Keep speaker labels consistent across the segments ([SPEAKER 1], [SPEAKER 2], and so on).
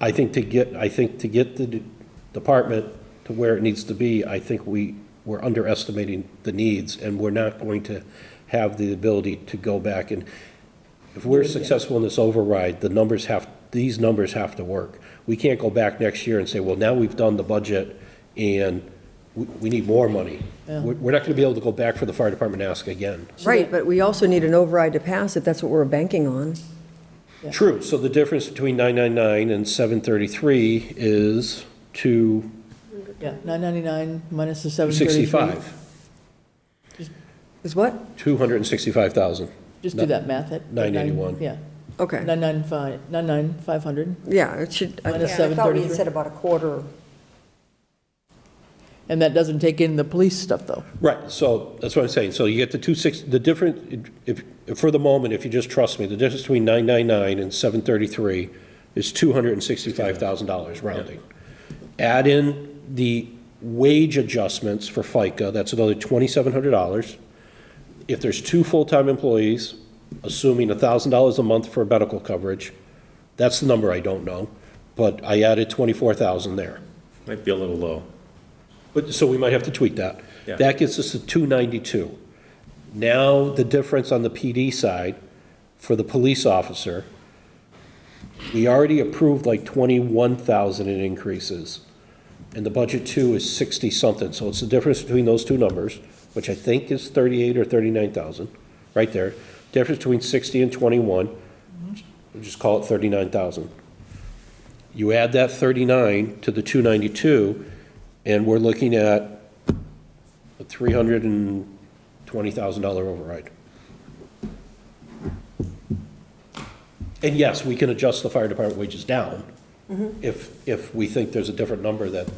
[SPEAKER 1] I think to get, I think to get the d- department to where it needs to be, I think we, we're underestimating the needs, and we're not going to have the ability to go back and, if we're successful in this override, the numbers have, these numbers have to work. We can't go back next year and say, well, now we've done the budget, and we, we need more money. We're, we're not gonna be able to go back for the fire department and ask again.
[SPEAKER 2] Right, but we also need an override to pass if that's what we're banking on.
[SPEAKER 1] True, so the difference between 999 and 733 is two
[SPEAKER 3] Yeah, 999 minus the 733.
[SPEAKER 1] 65,
[SPEAKER 2] Is what?
[SPEAKER 1] 265,000.
[SPEAKER 3] Just do that math at.
[SPEAKER 1] 991.
[SPEAKER 3] Yeah,
[SPEAKER 2] Okay,
[SPEAKER 3] 995, 99500,
[SPEAKER 2] yeah, it should, I-
[SPEAKER 3] Minus
[SPEAKER 2] I thought we had
[SPEAKER 3] 733.
[SPEAKER 2] said about a quarter.
[SPEAKER 3] and that doesn't take in the police stuff, though.
[SPEAKER 1] Right, so that's what I'm saying, so you get the 26, the difference, if, if- for the moment, if you just trust me, the difference between 999 and 733 is $265,000 rounding. Add in the wage adjustments for FICA, that's another $2,700. If there's two full-time employees, assuming $1,000 a month for medical coverage, that's the number I don't know, but I added 24,000 there.
[SPEAKER 4] Might be a little low.
[SPEAKER 1] But, so we might have to tweak that.
[SPEAKER 4] Yeah.
[SPEAKER 1] That gets us to 292. Now, the difference on the PD side for the police officer, we already approved like 21,000 in increases, and the budget two is 60-something, so it's the difference between those two numbers, which I think is 38 or 39,000, right there. Difference between 60 and 21, we'll just call it 39,000. You add that 39 to the 292, and we're looking at a $320,000 override. And yes, we can adjust the fire department wages down if, if we think there's a different number that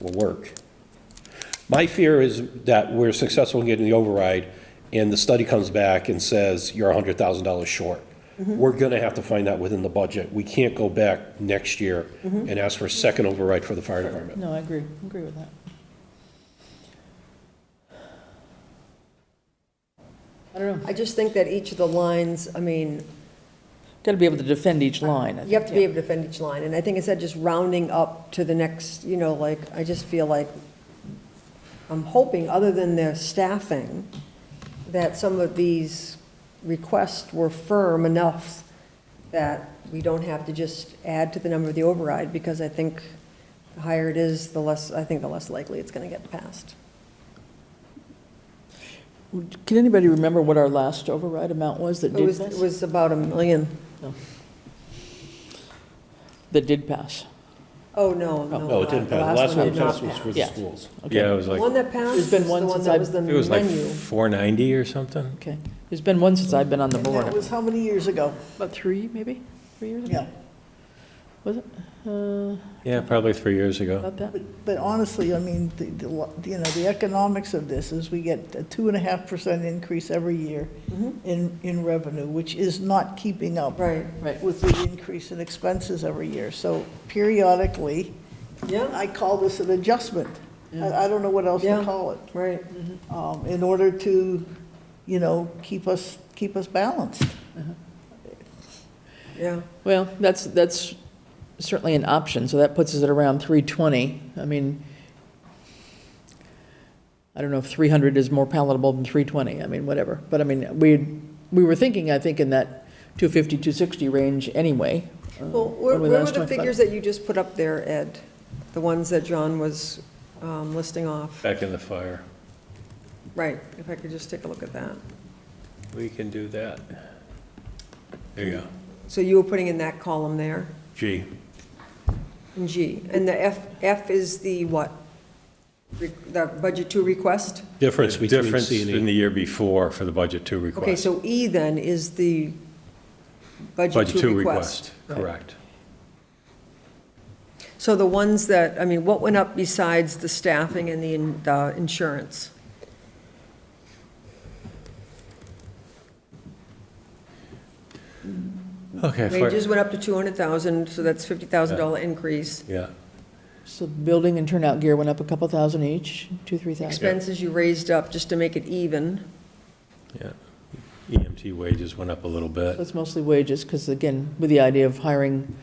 [SPEAKER 1] will work. My fear is that we're successful in getting the override, and the study comes back and says, you're $100,000 short. We're going to have to find that within the budget. We can't go back next year and ask for a second override for the fire department.
[SPEAKER 3] No, I agree, agree with that. I don't know,
[SPEAKER 2] I just think that each of the lines, I mean,
[SPEAKER 3] got to be able to defend each line. I
[SPEAKER 2] you have to
[SPEAKER 3] think,
[SPEAKER 2] be
[SPEAKER 3] yeah.
[SPEAKER 2] able to defend each line, and I think instead of just rounding up to the next, you know, like, I just feel like, I'm hoping, other than their staffing, that some of these requests were firm enough that we don't have to just add to the number of the override, because I think the higher it is, the less, I think the less likely it's gonna get passed.
[SPEAKER 3] Can anybody remember what our last override amount was that
[SPEAKER 2] It
[SPEAKER 3] did
[SPEAKER 2] was, it
[SPEAKER 3] pass?
[SPEAKER 2] was about a million.
[SPEAKER 3] That did pass.
[SPEAKER 2] Oh, no, no.
[SPEAKER 1] No, it didn't pass. The last one
[SPEAKER 2] did not
[SPEAKER 1] passed was for the
[SPEAKER 3] Yeah.
[SPEAKER 1] schools.
[SPEAKER 3] Okay.
[SPEAKER 4] Yeah, it was
[SPEAKER 2] The
[SPEAKER 4] like,
[SPEAKER 2] one that passed
[SPEAKER 3] There's
[SPEAKER 2] is
[SPEAKER 3] been
[SPEAKER 2] the
[SPEAKER 3] one
[SPEAKER 2] one
[SPEAKER 3] since
[SPEAKER 2] that
[SPEAKER 3] I've-
[SPEAKER 2] was the
[SPEAKER 4] it was like
[SPEAKER 2] menu.
[SPEAKER 4] 490 or something?
[SPEAKER 3] Okay, it's been one since I've been on the board.
[SPEAKER 5] That was how many years ago?
[SPEAKER 3] About three, maybe, three years ago?
[SPEAKER 5] Yeah.
[SPEAKER 3] Was it, uh,
[SPEAKER 4] Yeah, probably three years ago.
[SPEAKER 3] about that?
[SPEAKER 5] But, but honestly, I mean, the, the lo- you know, the economics of this is we get a two and a half percent increase every year in, in revenue, which is not keeping up
[SPEAKER 2] Mm-hmm. Right,
[SPEAKER 3] Right.
[SPEAKER 5] with the increase in expenses every year. So periodically,
[SPEAKER 2] yeah,
[SPEAKER 5] I call this an adjustment. I, I don't know what else
[SPEAKER 2] Yeah.
[SPEAKER 5] to call it,
[SPEAKER 2] right.
[SPEAKER 5] um, in order to, you know, keep us, keep us balanced.
[SPEAKER 2] Yeah,
[SPEAKER 3] Well, that's, that's certainly an option, so that puts us at around 320. I mean, I don't know if 300 is more palatable than 320, I mean, whatever. But I mean, we, we were thinking, I think, in that 250, 260 range anyway. uh,
[SPEAKER 2] well,
[SPEAKER 3] when
[SPEAKER 2] where
[SPEAKER 3] we
[SPEAKER 2] where were
[SPEAKER 3] last
[SPEAKER 2] the
[SPEAKER 3] went, but-
[SPEAKER 2] figures that you just put up there, Ed? The ones that John was um, listing off?
[SPEAKER 4] Back in the fire.
[SPEAKER 2] Right, if I could just take a look at that.
[SPEAKER 4] We can do that. There you go.
[SPEAKER 2] So you were putting in that column there,
[SPEAKER 4] G.
[SPEAKER 2] in G, and the F, F is the what? Re- The budget two request?
[SPEAKER 1] Difference between
[SPEAKER 4] Difference
[SPEAKER 1] C
[SPEAKER 4] in
[SPEAKER 1] and
[SPEAKER 4] the
[SPEAKER 1] E.
[SPEAKER 4] year before for the budget two
[SPEAKER 2] Okay,
[SPEAKER 4] request.
[SPEAKER 2] so E then is the budget
[SPEAKER 4] Budget
[SPEAKER 2] two request.
[SPEAKER 4] Correct.
[SPEAKER 2] So the ones that, I mean, what went up besides the staffing and the in- the insurance?
[SPEAKER 4] Okay. fire-
[SPEAKER 2] Wages went up to 200,000, so that's $50,000 increase.
[SPEAKER 4] Yeah,
[SPEAKER 3] So building and turnout gear went up a couple thousand each, two, 3,000.
[SPEAKER 2] Expenses you raised up just to make it even.
[SPEAKER 4] yeah. EMT wages went up a little bit.
[SPEAKER 3] So it's mostly wages, because again, with the idea of hiring